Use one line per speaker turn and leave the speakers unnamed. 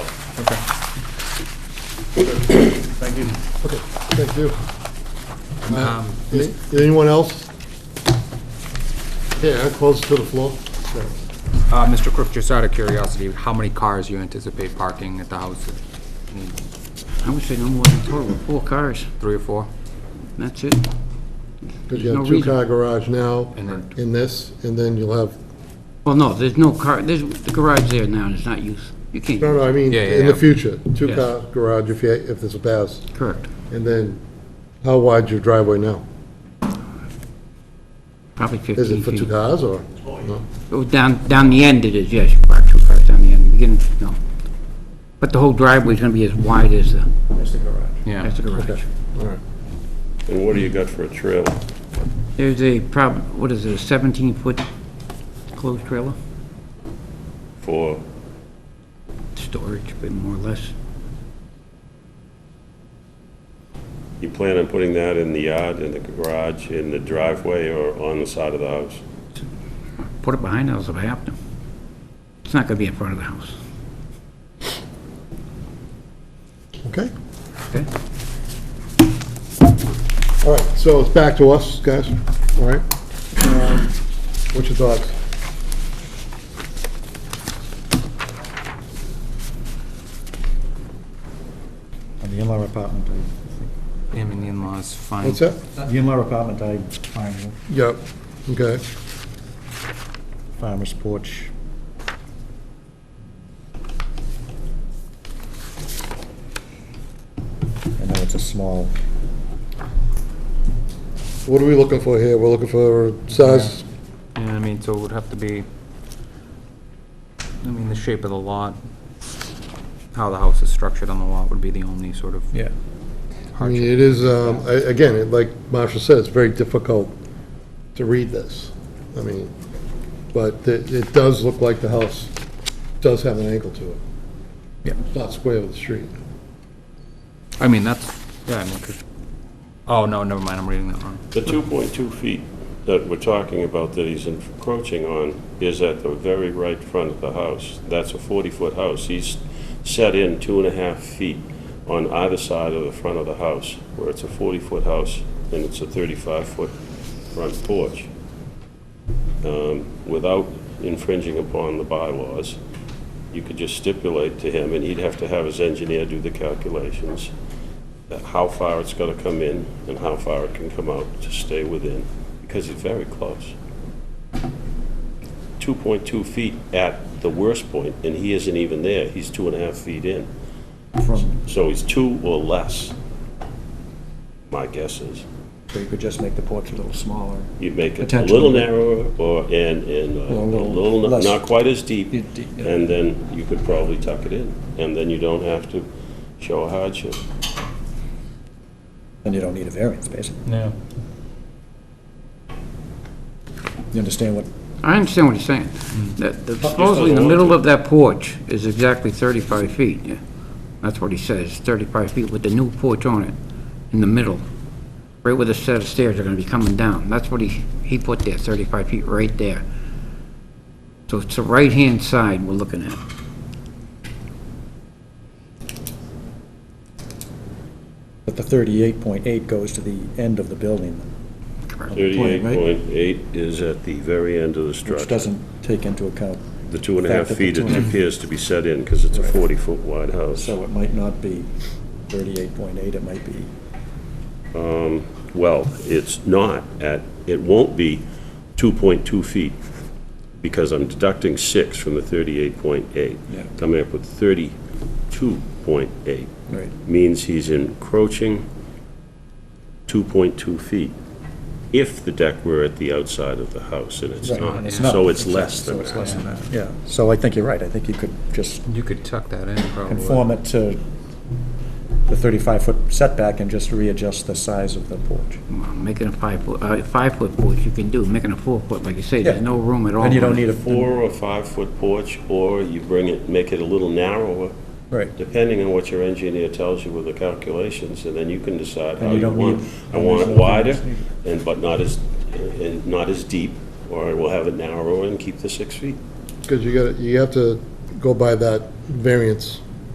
didn't.
Okay, thank you.
Um,
Any- Anyone else? Yeah, close to the floor. Yeah.
uh, Mr. Crook, just out of curiosity, how many cars you anticipate parking at the house? I mean,
I would say no more than total, four cars,
Three or four?
that's it.
Because you
No
have
reason.
two-car garage now,
And then-
in this, and then you'll have,
Well, no, there's no car, there's, the garage there now is not used, you can't,
no,
use
no, I mean,
Yeah, yeah,
in the
yeah.
future, two-car garage if you, if there's a pass.
it. correct,
And then, how wide's your driveway now?
probably fifteen
Is
feet.
it for two cars, or? no?
Oh, Down, down the end it is, yes, you park two cars down the end, beginning, no. But the whole driveway's gonna be as wide as the,
Yeah.
as the garage.
All right.
And what do you got for a trail?
There's a prob, what is it, a seventeen-foot closed trailer?
For,
Storage, but more or less.
you plan on putting that in the yard, in the garage, in the driveway, or on the side of the house?
Put it behind the house if I have to. It's not gonna be in front of the house,
Okay,
okay?
all right, so it's back to us, guys, all right? Um, What's your thoughts?
On the in-law apartment, I
Him and the in-laws, fine.
What's that?
think. The in-law apartment, I find you know,
Yep. Okay,
farmer's porch. I know it's a small,
what are we looking for here? We're looking for size,
Yeah, I mean, so it would have to be, I mean, the shape of the lot, how the house is structured on the lot would be the only sort of
yeah,
I mean,
hardship.
it is, um, a- again, it- like Marshall said, it's very difficult to read this. I mean, but it it does look like the house does have an angle to it.
Yeah.
It's not square with the street.
I mean, that's, yeah, I mean, 'cause- oh, no, never mind, I'm reading that wrong.
The 2.2 feet that we're talking about that he's encroaching on is at the very right front of the house. That's a 40-foot house. He's set in two and a half feet on either side of the front of the house, where it's a 40-foot house, and it's a 35-foot front porch, Um, without infringing upon the bylaws. You could just stipulate to him, and he'd have to have his engineer do the calculations, that how far it's gonna come in and how far it can come out to stay within, because it's very close. 2.2 feet at the worst point, and he isn't even there, he's two and a half feet in.
from,
So he's two or less, my guess is.
so you could just make the porch a little smaller.
You make it a
Potentially.
little narrower, or, and, and uh,
Or a
a
little
little, not-
less.
not quite as deep,
You d- yeah.
and then you could probably tuck it in, and then you don't have to show a hardship.
And you don't need a variance, basically.
Yeah.
You understand what,
I understand what he's saying.
Mm-hmm.
That- that Supposedly, the
doesn't
middle
want
of that porch is exactly 35 feet. yeah. That's what he says, 35 feet with the new porch on it, in the middle, right where the set of stairs are going to be coming down. That's what he, he put there, 35 feet right there. So it's the right-hand side we're looking at.
but the thirty-eight point eight goes to the end of the building,
Thirty-eight
Point, right?
point eight is at the very end of the structure.
which doesn't take into account,
The two and a half
Fact that the
feet
two
it
and a-
appears to be set in, because it's a 40-foot wide house.
so it might not be thirty-eight point eight, it might be
Well, it's not at, it won't be 2.2 feet, because I'm deducting six from the 38.8.
Yeah.
Coming up with 32.8.
Right.
Means he's encroaching 2.2 feet, if the deck were at the outside of the house, and it's
Right,
not.
and it's not.
So it's less than
So it's less
that.
than that, yeah. So I think you're right, I think you could just
You could tuck that in, probably.
conform it to the 35-foot setback and just readjust the size of the porch.
Well, Making a five-foot, uh, five-foot porch you can do, making a four-foot, like you say, there's
Yeah.
no room at all.
And you don't
on it.
need a
Four or five-foot porch, or you bring it, make it a little narrower,
Right.
depending on what your engineer tells you with the calculations, and then you can decide how
you
you
don't
want.
need-
I want it
there's no
wider,
variance
and, but not as, and not as deep, or I will have it narrower and keep the six feet.
Because you gotta, you have to go by that variance